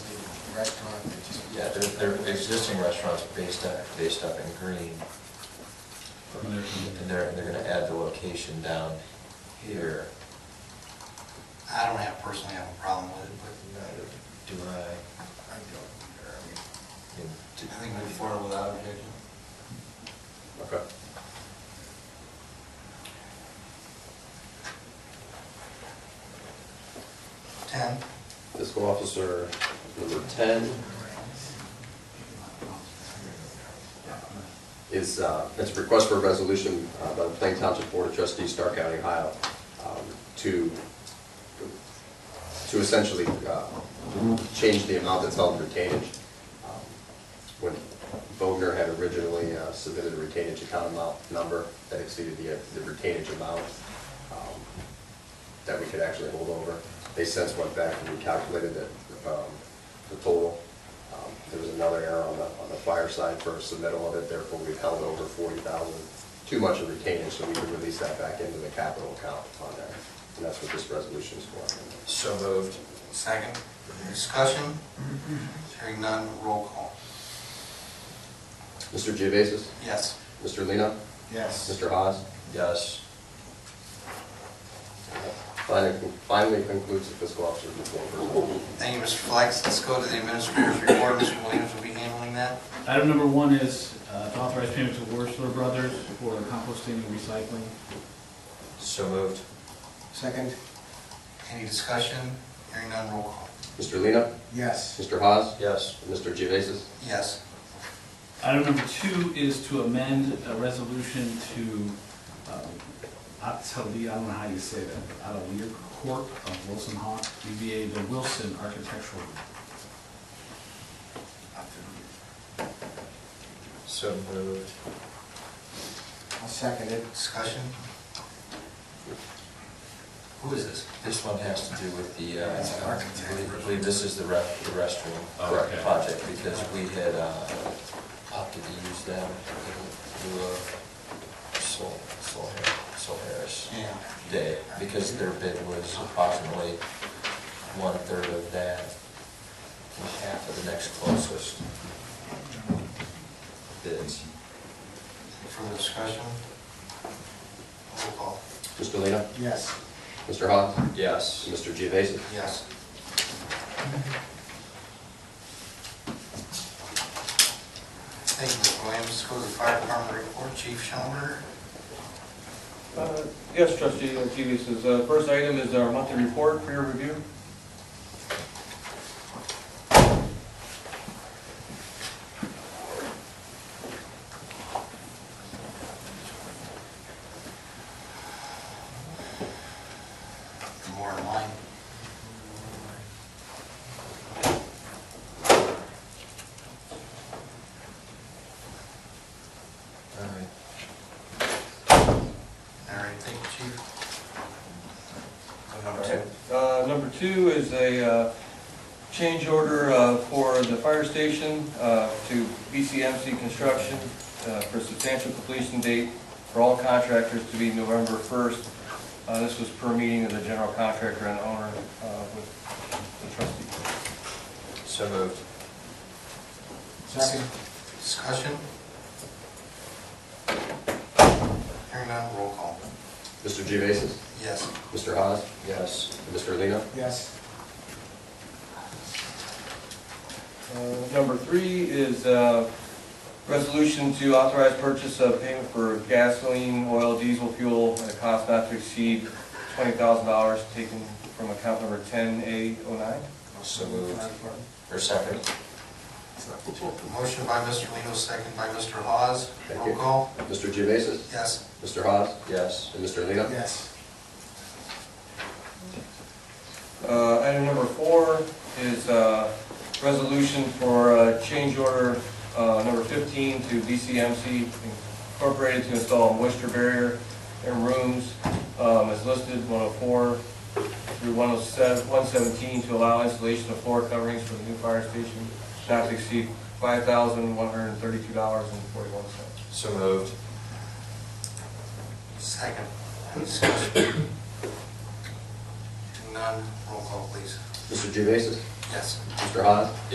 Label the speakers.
Speaker 1: restaurant that just.
Speaker 2: Yeah, they're, they're existing restaurants based up, based up in green. And they're, they're gonna add the location down here.
Speaker 3: I don't have, personally have a problem with it,
Speaker 2: Neither Do I?
Speaker 1: I don't, care. I mean,
Speaker 2: And
Speaker 3: but
Speaker 2: do-
Speaker 3: I think move forward without objection.
Speaker 4: Okay.
Speaker 3: Ten?
Speaker 4: Fiscal officer number ten is, uh, it's a request for a resolution uh, by the Plain Township Board of Trustees, Stark County, Ohio, um, to, to essentially uh, change the amount that's held in retainage. Um, When Vogner had originally uh, submitted a retainage account amount number that exceeded the, uh, the retainage amount, um, that we could actually hold over. They since went back and recalculated the, um, the total. Um, There was another error on the, on the fire side for submittal of it, therefore we've held over forty thousand, too much of retainage, so we could release that back into the capital account on there. And that's what this resolution is for.
Speaker 2: So moved.
Speaker 3: Second, discussion, hearing none, roll call.
Speaker 4: Mr. Geovasis?
Speaker 3: Yes.
Speaker 4: Mr. Lino?
Speaker 1: Yes,
Speaker 4: Mr. Haas?
Speaker 2: Yes.
Speaker 4: Finally finally concludes the fiscal officer's report.
Speaker 3: Thank you, Mr. Flex. Let's go to the administrator's report. Mr. Williams will be handling that.
Speaker 5: Item number one is uh, to authorize payment to Worsler Brothers for composting and recycling.
Speaker 2: So moved.
Speaker 1: second,
Speaker 3: Any discussion, hearing none, roll call.
Speaker 4: Mr. Lino?
Speaker 1: yes,
Speaker 4: Mr. Haas?
Speaker 2: Yes.
Speaker 4: Mr. Geovasis?
Speaker 3: Yes.
Speaker 5: Item number two is to amend a resolution to um, Atelier, I don't know how you say that, Atelier Corp. of Wilson Hawk, DBA The Wilson Architectural.
Speaker 2: So moved.
Speaker 1: I'll second it.
Speaker 3: Discussion? Who is this?
Speaker 2: This one has to do with the, uh,
Speaker 1: It's an architect.
Speaker 2: I believe- I believe this is the ref, the restroom
Speaker 4: Oh, okay.
Speaker 2: project, because we had uh, opted to use them to, Sol, Sol, Sol Harris
Speaker 3: Yeah.
Speaker 2: Day, because their bid was approximately one-third of that, and half of the next closest bids.
Speaker 3: Further discussion? Roll call.
Speaker 4: Mr. Lino?
Speaker 1: Yes,
Speaker 4: Mr. Haas?
Speaker 2: Yes.
Speaker 4: Mr. Geovasis?
Speaker 3: Yes. Thank you, Mr. Williams. Let's go to the fire department report. Chief Schellenberger.
Speaker 6: Uh, Yes, trustee Latifis, is, uh, first item is our monthly report for your review.
Speaker 3: More in line.
Speaker 2: All right.
Speaker 3: All right, thank you, chief.
Speaker 2: Number two.
Speaker 6: Uh, Number two is a uh, change order uh, for the fire station uh, to BCMC Construction uh, for substantial completion date for all contractors to be November 1st. Uh, This was per meeting of the general contractor and owner uh, with the trustee.
Speaker 2: So moved.
Speaker 1: second,
Speaker 3: Discussion? Hearing none, roll call.
Speaker 4: Mr. Geovasis?
Speaker 3: Yes.
Speaker 4: Mr. Haas?
Speaker 2: Yes.
Speaker 4: Mr. Lino?
Speaker 1: yes,
Speaker 6: Uh, Number three is uh, resolution to authorize purchase of payment for gasoline, oil, diesel fuel at a cost not to exceed $20,000 taken from account number 10A09.
Speaker 2: So moved. Or second?
Speaker 3: Motion by Mr. Lino, second by Mr. Hawes.
Speaker 4: Thank
Speaker 3: Roll
Speaker 4: you.
Speaker 3: call.
Speaker 4: Mr. Geovasis?
Speaker 3: Yes.
Speaker 4: Mr. Haas?
Speaker 2: Yes.
Speaker 4: And Mr. Lino?
Speaker 1: yes,
Speaker 6: Uh, Item number four is uh, resolution for uh, change order uh, number 15 to BCMC Incorporated to install moisture barrier in rooms um, as listed 104 through 107 117 to allow installation of floor coverings for the new fire station not to exceed $5,132.41.
Speaker 2: So moved.
Speaker 3: Second. Discussion? Hearing none, roll call, please.
Speaker 4: Mr. Geovasis?
Speaker 3: Yes.
Speaker 4: Mr. Haas?